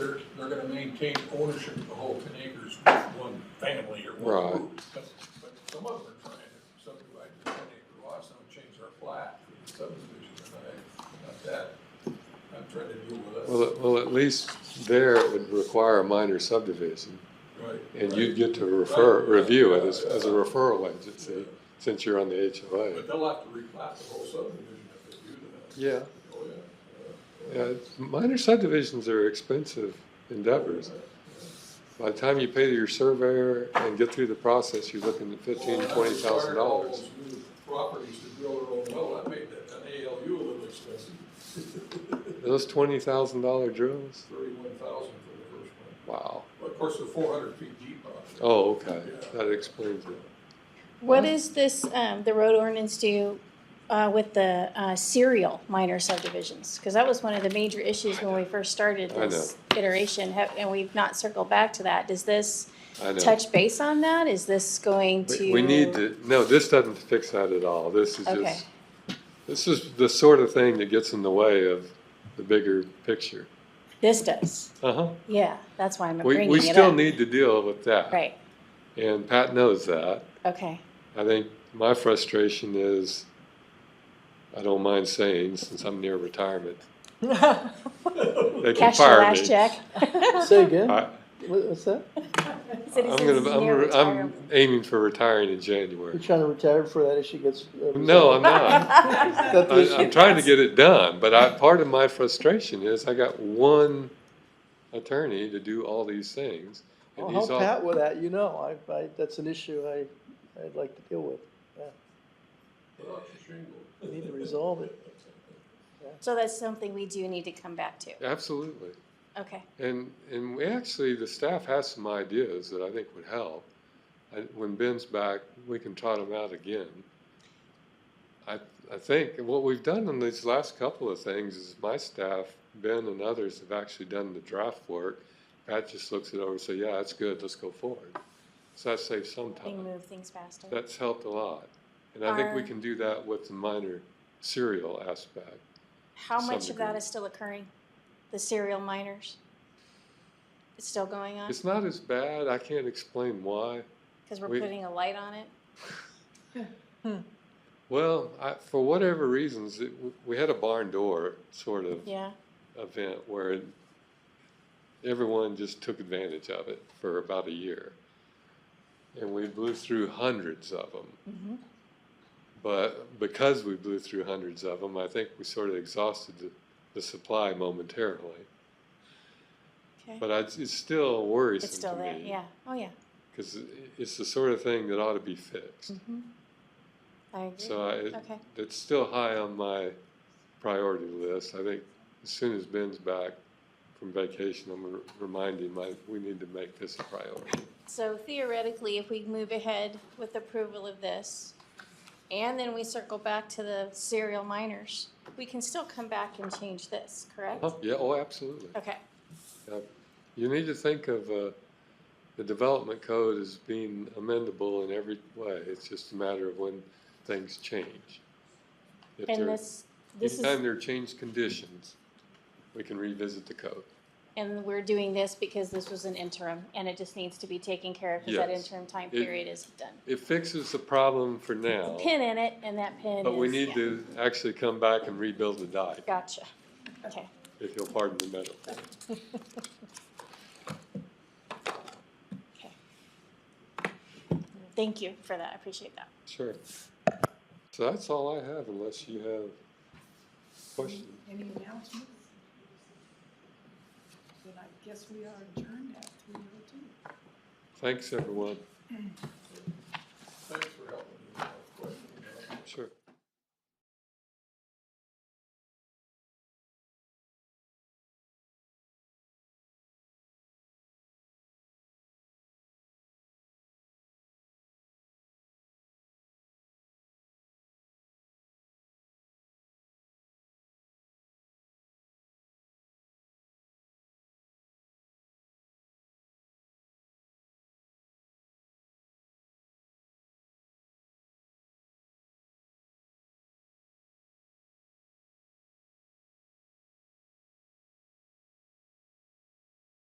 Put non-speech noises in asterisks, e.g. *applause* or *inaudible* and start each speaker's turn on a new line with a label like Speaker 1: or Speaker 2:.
Speaker 1: they're, they're gonna maintain ownership of the whole ten acres with one family or one
Speaker 2: Right.
Speaker 1: group. But, but some of them are trying to subdivide the ten acre lots, and change their plat for the subdivision, and I, not that. I'm trying to deal with
Speaker 2: Well,
Speaker 1: that.
Speaker 2: at- well, at least there it would require a minor subdivision,
Speaker 1: Right,
Speaker 2: and
Speaker 1: right.
Speaker 2: you'd get to refer, review it as, as a referral
Speaker 1: Yeah.
Speaker 2: agency, since you're on the HOA.
Speaker 1: But they'll have to replat the whole subdivision if they do that.
Speaker 2: Yeah,
Speaker 1: Oh, yeah.
Speaker 2: yeah, it's- minor subdivisions are expensive endeavors. By the time you pay your surveyor and get through the process, you're looking at fifteen,
Speaker 1: Well, when I
Speaker 2: twenty thousand
Speaker 1: acquired all
Speaker 2: dollars.
Speaker 1: those new Properties to drill their own well, that made that, an ALU a little expensive, *laughs*
Speaker 2: Those twenty thousand dollar drills,
Speaker 1: thirty-one thousand for the first one.
Speaker 2: wow.
Speaker 1: But of course, they're four hundred feet deep out there.
Speaker 2: Oh, okay, that explains it.
Speaker 3: What does this, um, the road ordinance do, uh, with the, uh, serial minor subdivisions? Cause that was one of the major issues when we first started
Speaker 2: I
Speaker 3: this iteration, ha- and we've not circled back to that. Does this
Speaker 2: I know.
Speaker 3: touch base on that? Is this going
Speaker 2: We-
Speaker 3: to?
Speaker 2: We need to, no, this doesn't fix that at all. This is
Speaker 3: Okay.
Speaker 2: just, this is the sort of thing that gets in the way of the bigger picture.
Speaker 3: This does,
Speaker 2: Uh-huh.
Speaker 3: yeah, that's why I'm
Speaker 2: We,
Speaker 3: bringing
Speaker 2: we
Speaker 3: it
Speaker 2: still
Speaker 3: up.
Speaker 2: need to deal with that.
Speaker 3: Right,
Speaker 2: And Pat knows that.
Speaker 3: okay,
Speaker 2: I think my frustration is, I don't mind saying, since I'm near retirement, they can
Speaker 3: cash your
Speaker 2: fire
Speaker 3: last
Speaker 2: me. *laughs*
Speaker 3: check. *laughs*
Speaker 4: Say again?
Speaker 2: I-
Speaker 4: What- What's that?
Speaker 2: I'm gonna, I'm, I'm aiming for retiring in January.
Speaker 4: You're trying to retire before that issue gets. uh,
Speaker 2: No, I'm
Speaker 4: resolved?
Speaker 2: not. *laughs*
Speaker 4: Is that the
Speaker 2: I,
Speaker 4: issue?
Speaker 2: I'm trying to get it done, but I, part of my frustration is I got one attorney to do all these things.
Speaker 4: I'll
Speaker 2: And he's
Speaker 4: help
Speaker 2: all,
Speaker 4: Pat with that, you know, I, I, that's an issue I, I'd like to deal with.
Speaker 1: Without the shingle.
Speaker 4: We need to resolve it.
Speaker 3: So that's something we do need to come back to,
Speaker 2: absolutely.
Speaker 3: okay,
Speaker 2: And, and we actually, the staff has some ideas that I think would help. I- When Ben's back, we can trot them out again. I, I think what we've done in these last couple of things is my staff, Ben and others have actually done the draft work. Pat just looks it over and says, yeah, that's good, let's go forward. So that saves some
Speaker 3: we can
Speaker 2: time.
Speaker 3: move things faster.
Speaker 2: That's helped a lot. And I think we
Speaker 3: Are-
Speaker 2: can do that with the minor serial aspect.
Speaker 3: How
Speaker 2: some
Speaker 3: much of that
Speaker 2: degree.
Speaker 3: is still occurring? The serial minors? It's still going on?
Speaker 2: It's not as bad, I can't explain why.
Speaker 3: Because we're
Speaker 2: we-
Speaker 3: putting a light on it?
Speaker 2: Well, I, for whatever reasons, it, we had a barn door sort of
Speaker 3: Yeah,
Speaker 2: event where it, everyone just took advantage of it for about a year. And we blew through hundreds of them.
Speaker 3: Mhm.
Speaker 2: But because we blew through hundreds of them, I think we sort of exhausted the, the supply momentarily.
Speaker 3: okay.
Speaker 2: But I, it's still worrisome
Speaker 3: It's still
Speaker 2: to
Speaker 3: there,
Speaker 2: me
Speaker 3: yeah, oh yeah.
Speaker 2: because it's the sort of thing that ought to be fixed.
Speaker 3: Mhm. I agree,
Speaker 2: So I, it,
Speaker 3: okay.
Speaker 2: It's still high on my priority list. I think as soon as Ben's back from vacation, I'm gonna remind him, I, we need to make this a priority.
Speaker 3: So theoretically, if we move ahead with approval of this, and then we circle back to the serial minors, we can still come back and change this, correct?
Speaker 2: Huh, Yeah, oh, absolutely.
Speaker 3: Okay,
Speaker 2: You need to think of, uh, the development code as being amendable in every way. It's just a matter of when things change. If
Speaker 3: and
Speaker 2: there-
Speaker 3: this, this is.
Speaker 2: Anytime there are changed conditions, we can revisit the code.
Speaker 3: And we're doing this because this was an interim and it just needs to be taken care of because that
Speaker 2: Yes.
Speaker 3: interim time
Speaker 2: It-
Speaker 3: period is done.
Speaker 2: It fixes the problem for now.
Speaker 3: Pin in it and that pin is.
Speaker 2: But we need
Speaker 3: yeah.
Speaker 2: to actually come back and rebuild the dike,
Speaker 3: Gotcha. Okay.
Speaker 2: if you'll pardon the metaphor.
Speaker 3: Thank you for that. I appreciate that.
Speaker 2: Sure. So that's all I have unless you have questions.
Speaker 5: Any announcements? Then I guess we are adjourned at three oh two.
Speaker 2: Thanks, everyone.